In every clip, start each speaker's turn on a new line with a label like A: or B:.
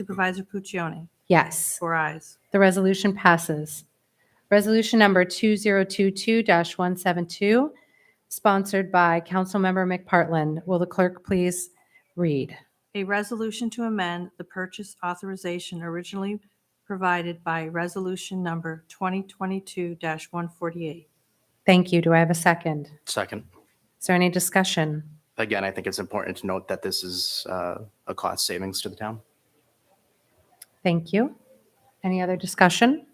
A: Supervisor Puccioni,
B: Yes.
A: four eyes.
B: The resolution passes. Resolution number 2022-172, sponsored by Councilmember McPartlin. Will the clerk please read?
A: A resolution to amend the purchase authorization originally provided by Resolution Number 2022-148.
B: Thank you. Do I have a second?
C: Second.
B: Is there any discussion?
C: Again, I think it's important to note that this is uh, a cost savings to the town.
B: Thank you. Any other discussion?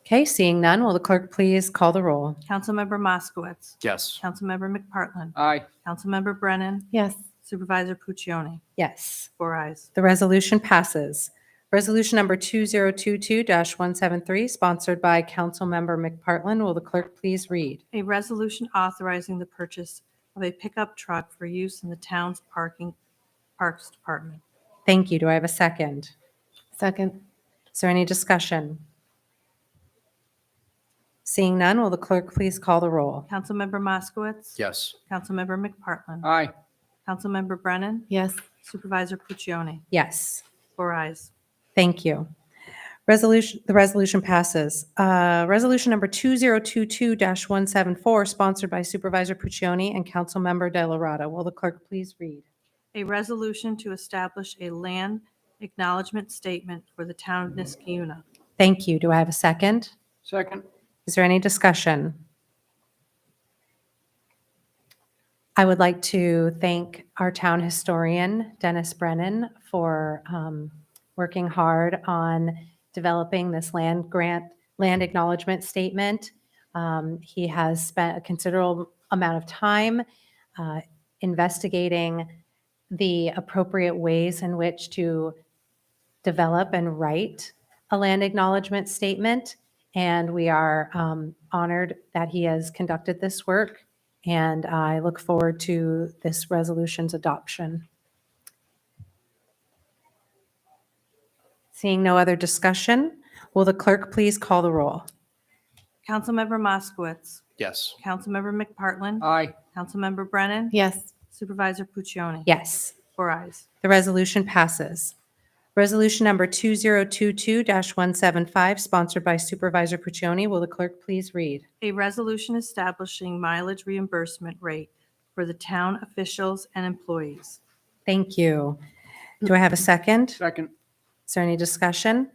B: Okay, seeing none, will the clerk please call the roll?
A: Councilmember Moskowitz.
C: Yes.
A: Councilmember McPartlin.
D: Aye.
A: Councilmember Brennan.
B: Yes.
A: Supervisor Puccioni,
B: Yes.
A: four eyes.
B: The resolution passes. Resolution number 2022-173, sponsored by Councilmember McPartlin. Will the clerk please read?
A: A resolution authorizing the purchase of a pickup truck for use in the town's parking, Parks Department.
B: Thank you. Do I have a second?
E: Second.
B: Is there any discussion? Seeing none, will the clerk please call the roll?
A: Councilmember Moskowitz.
C: Yes.
A: Councilmember McPartlin.
D: Aye.
A: Councilmember Brennan.
E: Yes.
A: Supervisor Puccioni,
B: Yes.
A: four eyes.
B: Thank you. Resolution, the resolution passes. Uh, Resolution number 2022-174, sponsored by Supervisor Puccioni and Councilmember Delarada. Will the clerk please read?
A: A resolution to establish a land acknowledgement statement for the town of Niskiuna.
B: Thank you. Do I have a second?
D: Second.
B: Is there any discussion? I would like to thank our town historian, Dennis Brennan, for um, working hard on developing this land grant, land acknowledgement statement. Um, He has spent a considerable amount of time uh, investigating the appropriate ways in which to develop and write a land acknowledgement statement. And we are um, honored that he has conducted this work. And I look forward to this resolution's adoption. Seeing no other discussion, will the clerk please call the roll?
A: Councilmember Moskowitz.
C: Yes.
A: Councilmember McPartlin.
D: Aye.
A: Councilmember Brennan.
E: Yes.
A: Supervisor Puccioni.
B: Yes,
A: Four eyes.
B: the resolution passes. Resolution number 2022-175, sponsored by Supervisor Puccioni. Will the clerk please read?
A: A resolution establishing mileage reimbursement rate for the town officials and employees.
B: Thank you. Do I have a second?
D: Second.
B: Is there any discussion?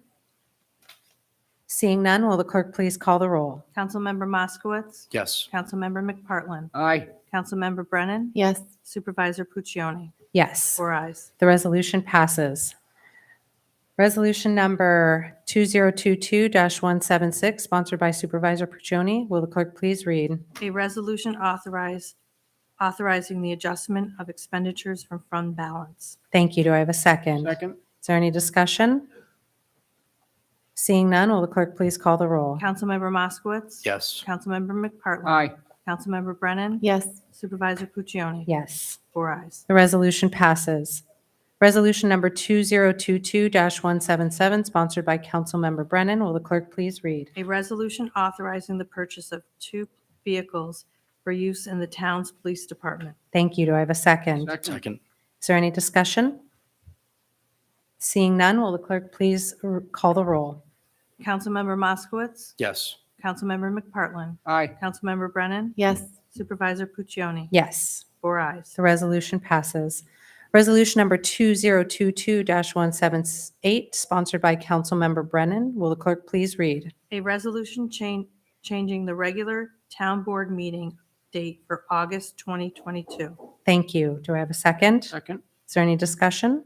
B: Seeing none, will the clerk please call the roll?
A: Councilmember Moskowitz.
C: Yes.
A: Councilmember McPartlin.
D: Aye.
A: Councilmember Brennan.
E: Yes.
A: Supervisor Puccioni.
B: Yes,
A: Four eyes.
B: the resolution passes. Resolution number 2022-176, sponsored by Supervisor Puccioni. Will the clerk please read?
A: A resolution authorize, authorizing the adjustment of expenditures from fund balance.
B: Thank you. Do I have a second?
D: Second.
B: Is there any discussion? Seeing none, will the clerk please call the roll?
A: Councilmember Moskowitz.
C: Yes.
A: Councilmember McPartlin.
D: Aye.
A: Councilmember Brennan.
E: Yes.
A: Supervisor Puccioni.
B: Yes.
A: Four eyes.
B: The resolution passes. Resolution number 2022-177, sponsored by Councilmember Brennan. Will the clerk please read?
A: A resolution authorizing the purchase of two vehicles for use in the town's police department.
B: Thank you. Do I have a second?
D: Second.
C: Second.
B: Is there any discussion? Seeing none, will the clerk please r- call the roll?
A: Councilmember Moskowitz.
C: Yes.
A: Councilmember McPartlin.
D: Aye.
A: Councilmember Brennan.
E: Yes.
A: Supervisor Puccioni.
B: Yes,
A: Four eyes.
B: the resolution passes. Resolution number 2022-178, sponsored by Councilmember Brennan. Will the clerk please read?
A: A resolution chan- changing the regular town board meeting date for August 2022.
B: Thank you. Do I have a second?
D: Second.
B: Is there any discussion?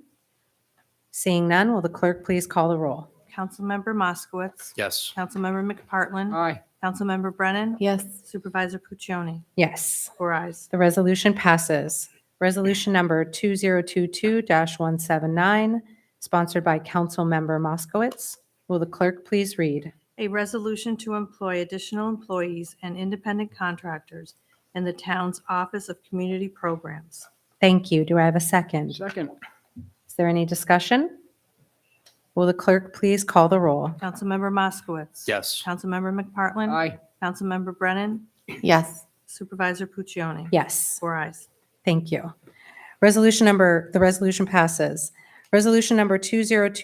B: Seeing none, will the clerk please call the roll?
A: Councilmember Moskowitz.
C: Yes.
A: Councilmember McPartlin.
D: Aye.
A: Councilmember Brennan.
E: Yes.
A: Supervisor Puccioni.
B: Yes,
A: Four eyes.
B: the resolution passes. Resolution number 2022-179, sponsored by Councilmember Moskowitz. Will the clerk please read?
A: A resolution to employ additional employees and independent contractors in the town's Office of Community Programs.
B: Thank you. Do I have a second?
D: Second.
B: Is there any discussion? Will the clerk please call the roll?
A: Councilmember Moskowitz.
C: Yes.
A: Councilmember McPartlin.
D: Aye.
A: Councilmember Brennan.
E: Yes.
A: Supervisor Puccioni.
B: Yes.
A: Four eyes.
B: Thank you. Resolution number, the resolution passes. Resolution number 202.